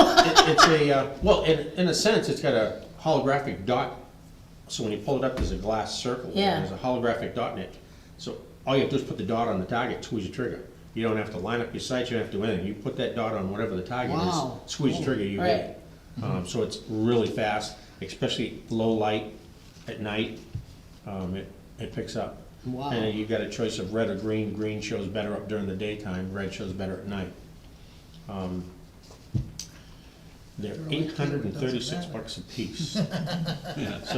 It- It's a, uh, well, in, in a sense, it's got a holographic dot, so when you pull it up, there's a glass circle. and Yeah. There's a holographic dot in it. So all you have to do is put the dot on the target, squeeze the trigger. You don't have to line up your sights, you don't have to do anything. You put that dot on whatever the target Wow. is, squeeze the trigger, you hit it. Um, so it's really fast, especially low light at night, um, it, it picks up. Wow. And you've got a choice of red or green. Green shows better up during the daytime, red shows better at night. Um, They're eight hundred and thirty-six bucks a piece. So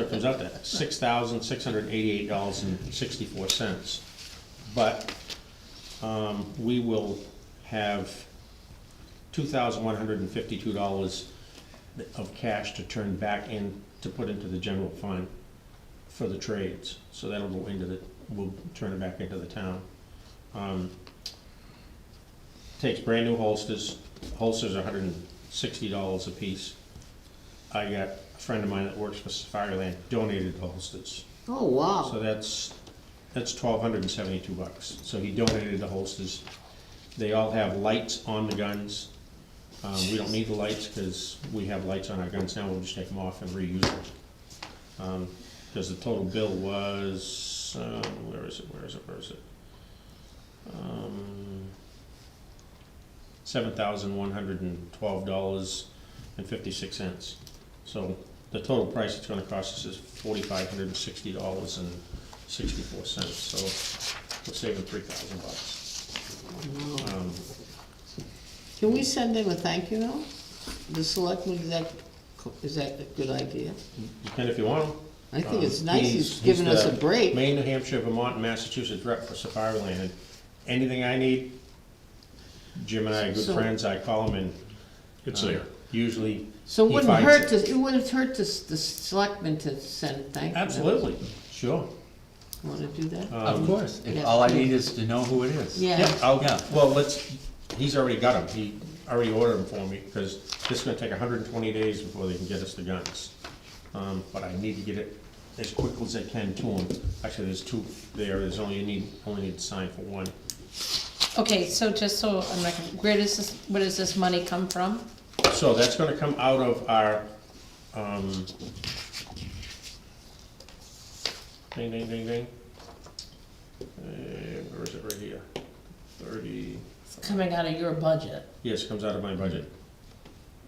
it comes out to six thousand, six hundred and eighty-eight dollars and sixty-four cents. But, um, we will have two thousand one hundred and fifty-two dollars of cash to turn back in, to put into the general fund for the trades. So that'll go into the, we'll turn it back into the town. Um, Takes brand new holsters, holsters are hundred and sixty dollars a piece. I got a friend of mine that works for Fireland donated the holsters. Oh, wow. So that's, that's twelve hundred and seventy-two bucks. So he donated the holsters. They all have lights on the guns. Um, we don't need the lights, cause we have lights on our guns now, we'll just take them off and reuse them. Um, cause the total bill was, um, where is it, where is it, where is it? Um, seven thousand one hundred and twelve dollars and fifty-six cents. So the total price it's gonna cost us is forty-five hundred and sixty dollars and sixty-four cents, so we're saving three thousand bucks. Um, Can we send them a thank you note? The selectmen, is that, co- is that a good idea? You can if you want. 'em. I think it's Um, nice he's giving us a the break. Maine, New Hampshire, Vermont, and Massachusetts rep for Safari Land, and anything I need, Jim and I are good So- friends, I call him and. It's there. Usually. So it he wouldn't finds hurt to, it wouldn't hurt to, s- the selectmen to send a thank you note. Absolutely, sure. Wanna do that? Of course, Um, if Yeah. all I need is to know who it is. Yeah, Yeah, I'll, Yeah. well, let's, he's already got them, he already ordered them for me, because this is gonna take hundred and twenty days before they can get us the guns. Um, but I need to get it as quick as I can to him, actually, there's two there, there's only, you need, only need to sign for one. Okay, so just so, I'm not, gonna- where does this, where does this money come from? So that's gonna come out of our, um, ding, ding, ding, ding. Uh, where is it, right here, thirty. It's coming out of your budget. Yes, comes out of my budget.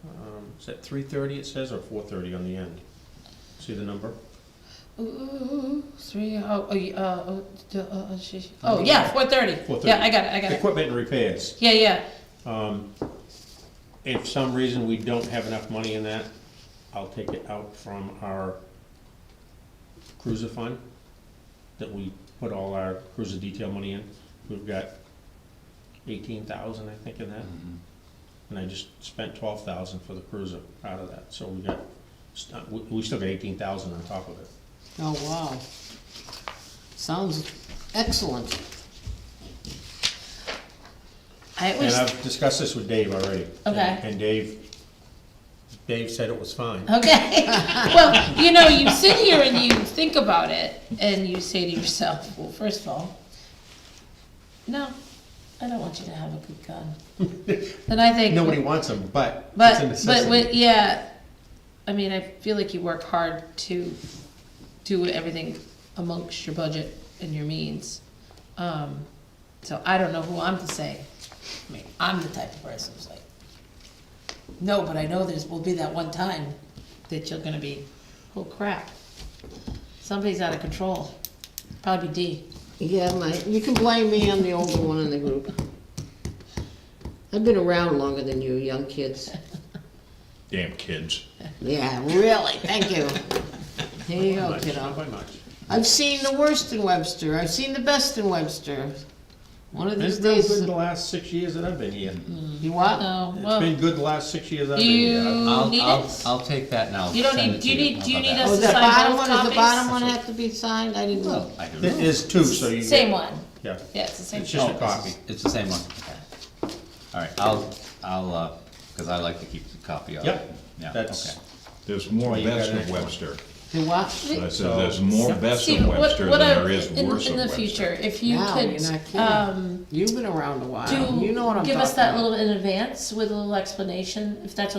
Um, Is that three thirty it says, or four thirty on the end? See the number? Ooh, three, oh, oh, you- uh, oh, d- uh, uh, she- she- oh, yeah, four thirty. Four thirty. Yeah, I got it, I got it. Equipment and repairs. Yeah, yeah, Um, If some reason we don't have enough money in that, I'll take it out from our cruiser fund that we put all our cruiser detail money in. We've got eighteen thousand, I think, in that. And I just spent twelve thousand for the cruiser out of that, so we got, st- we, we still got eighteen thousand on top of it. oh, wow. Sounds excellent. I And always, I've discussed this with Dave already. Okay. And Dave, Dave said it was fine. okay, well, you know, you sit here and you think about it, and you say to yourself, well, first of all, no, I don't want you to have a good gun. Then I think. Nobody wants them, but it's a But, but, necessity. with- yeah, I mean, I feel like you work hard to do everything amongst your budget and your means. Um, so I don't know who I'm to say. I mean, I'm the type of person who's like, no, but I know there's, will be that one time that you're gonna be, oh crap. Somebody's out of control. Probably D. Yeah, my, you can blame me, I'm the older one in the group. I've been around longer than you, young kids. Damn kids. Yeah, really, thank you. Here you Oh, go, Much, Not kiddo. by much. I've seen the worst in Webster, I've seen the best in Webster. One of It's these been days, good the last six years that I've been here. you what? Oh, It's well, been good the last six years I've been here. you I'll, need I'll, it? I'll take that now. You don't need- do you need- do you need us- Oh, Has to the sign bottom both one, does the copies? bottom one have to be signed? I didn't look. I don't There know. is two, so you. Same one. Yeah. Yeah, it's the same. It's just Oh, a it's- copy. It's the same one, okay. All right, I'll, I'll, uh, cause I like to keep the copy of it. Yep. Yeah, That's, okay. There's more Well, you got best an of extra one. Webster. The what? I So- said, there's more best Steve, of what- Webster than what I- there is in- worse In of the Webster. future, if you Wow, you're not could, kidding. um, You've been around a do, while, you know what I'm talking about. give us that little in advance with a little explanation, if that's okay